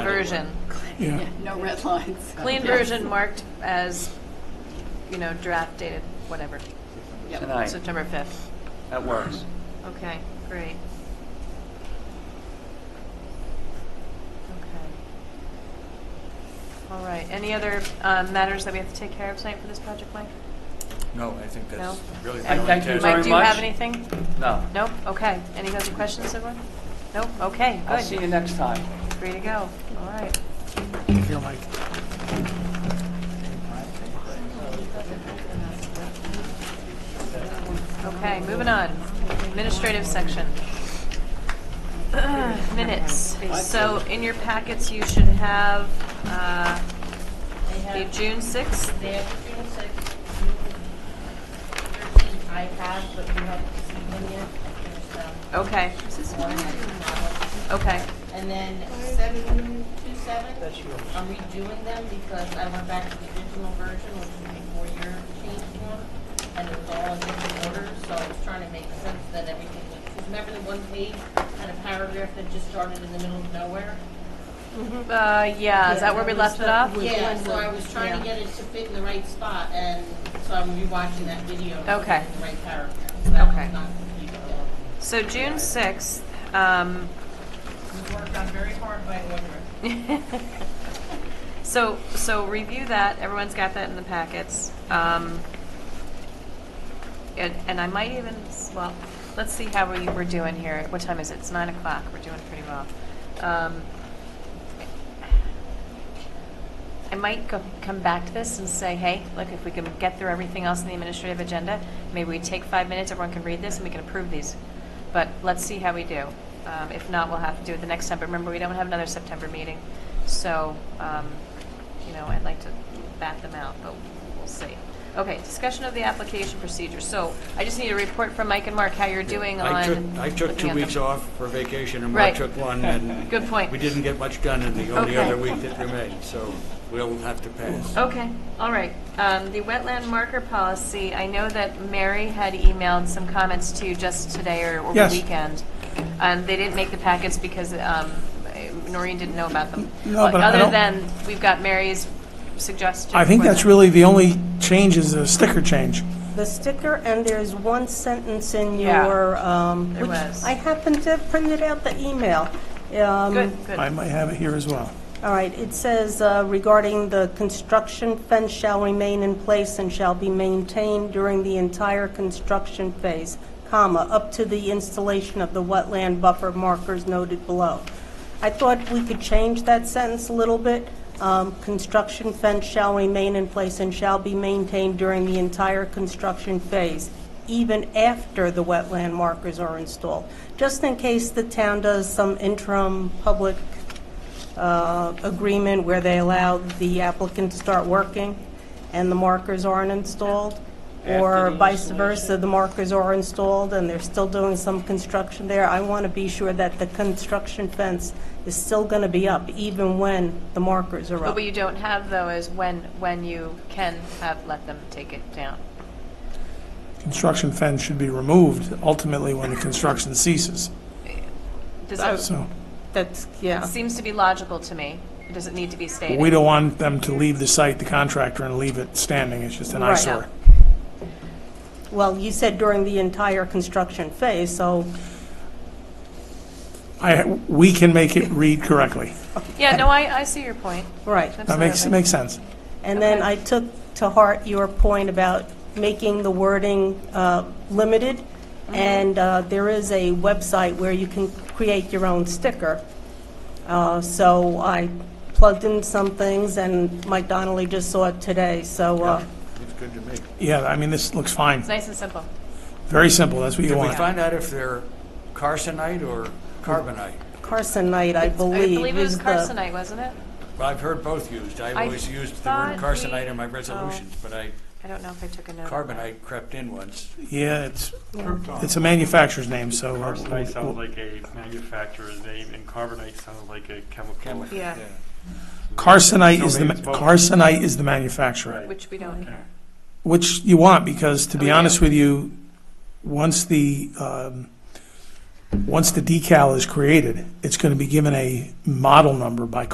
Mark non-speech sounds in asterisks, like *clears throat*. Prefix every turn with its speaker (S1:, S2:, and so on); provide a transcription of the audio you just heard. S1: version,
S2: Yeah,
S3: No red lines.
S1: clean version marked as, you know, draft dated, whatever,
S4: tonight.
S1: September 5th.
S4: That works.
S1: Okay, great. Okay. All right, any other uh, matters that we have to take care of tonight for this project, Mike?
S5: No, I think that's
S1: No?
S5: really the
S4: I
S5: only
S4: thank you
S5: task.
S4: very
S1: Mike, do you have
S4: much.
S1: anything?
S4: No.
S1: Nope, okay. Any other questions, everyone? Nope, okay,
S4: I'll see
S1: good.
S4: you next time.
S1: Free to go, all right.
S2: I feel like
S1: Okay, moving on. Administrative section. *clears throat* Minutes. So in your packets, you should have uh,
S6: They
S1: the
S6: have,
S1: June 6th.
S6: they have June sixth, June thirteenth, I have, but you haven't seen them yet. I finished them.
S1: Okay,
S6: Um,
S1: okay.
S6: And then seven, two seven, I'm redoing them because I went back to the original version, which was before your changed one, and it was all in different order, so I was trying to make sense that everything was, 'cause remember the one page had a paragraph that just started in the middle of nowhere?
S1: Uh, Yeah, is that where we left it off?
S6: Yeah, so I was trying to get it to fit in the right spot, and so I'm rewatching that video. to
S1: Okay.
S6: get The right paragraph, so that
S1: Okay.
S6: was not confused at all.
S1: So June 6th, um,
S6: We worked on very hard by order.
S1: So, so review that, everyone's got that in the packets. Um, And, and I might even, well, let's see how we, we're doing here. What time is it? It's nine o'clock, we're doing pretty well. Um, I might go, come back to this and say, hey, look, if we can get through everything else in the administrative agenda, maybe we take five minutes, everyone can read this, and we can approve these. But let's see how we do. Um, if not, we'll have to do it the next time. But remember, we don't have another September meeting, so, um, you know, I'd like to bat them out, but we'll see. Okay, discussion of the application procedure. So I just need a report from Mike and Mark, how you're doing on.
S5: I took, I took
S1: looking
S5: two
S1: at
S5: weeks
S1: them.
S5: off for vacation, and Mark
S1: Right.
S5: took one,
S1: *laughs*
S5: and...
S1: Good point.
S5: We didn't get much done in the
S1: Okay.
S5: only
S1: Oh.
S5: other week that remained, so we'll have to pass.
S1: Okay, all right. Um, The wetland marker policy, I know that Mary had emailed some comments to you just today or over the
S2: Yes.
S1: weekend. And they didn't make the packets because um, Noreen didn't know about them.
S2: No, but I
S1: Other
S2: don't-
S1: than, we've got Mary's suggestion.
S2: I think
S1: for
S2: that's
S1: them.
S2: really the only change is the sticker change.
S7: the sticker, and there's one sentence in
S1: Yeah.
S7: your, um,
S1: There
S7: which
S1: was.
S7: I happened to have printed out the email. Um,
S1: Good, good.
S2: I might have it here as well.
S7: All right, it says uh, regarding the construction fence shall remain in place and shall be maintained during the entire construction phase, comma, up to the installation of the wetland buffer markers noted below. I thought we could change that sentence a little bit. Um, Construction fence shall remain in place and shall be maintained during the entire construction phase, even after the wetland markers are installed, just in case the town does some interim public uh, agreement where they allow the applicant to start working and the markers aren't installed, or vice versa, the markers are installed and they're still doing some construction there. I want to be sure that the construction fence is still going to be up even when the markers are
S1: But
S7: up.
S1: what you don't have, though, is when, when you can have, let them take it down.
S2: Construction fence should be removed ultimately when the construction ceases.
S1: Does that,
S2: So
S7: That's, yeah.
S1: seems to be logical to me. It doesn't need to be stated.
S2: Oh. we don't want them to leave the site, the contractor, and leave it standing. It's just an
S7: Right.
S2: eyesore.
S7: Well, you said during the entire construction phase, so
S2: I, we can make it read correctly.
S1: Yeah, no, I, I see your point.
S7: Right.
S2: That makes,
S1: Absolutely.
S2: makes sense.
S7: And then
S1: Okay.
S7: I took to heart your point about making the wording uh, limited,
S1: Mm-hmm.
S7: and uh, there is a website where you can create your own sticker. Uh, So I plugged in some things, and Mike Donnelly just saw it today, so uh,
S5: Looks good to me.
S2: Yeah, I mean, this looks fine.
S1: It's nice and simple.
S2: Very simple. That's what you
S5: Did we
S2: want.
S5: find out if they're carcinite or carbonite?
S7: carcinite, I
S1: I
S7: believe.
S1: believe it was
S7: is the-
S1: carcinite, wasn't it?
S5: Well, I've heard both used. I've
S1: I
S5: always used the word
S1: thought we- Oh.
S5: carcinite in my resolutions, but I,
S1: I don't know if I took a note. of that.
S5: carbonite crept in once.
S2: Yeah, it's, it's a manufacturer's name, so. uh, we'll-
S8: Arsenite sounds
S2: we'll-
S8: like a manufacturer's name, and carbonite sounds like a chemical.
S5: Chemical,
S1: Yeah.
S2: Carcinite is
S8: So
S2: the, ma-
S8: maybe it's both.
S2: carcinite is the manufacturer.
S8: Right.
S1: Which we don't care.
S2: Which you want, because to be
S1: Oh, yeah.
S2: honest with you, once the, um, once the decal is created, it's going to be given a model number by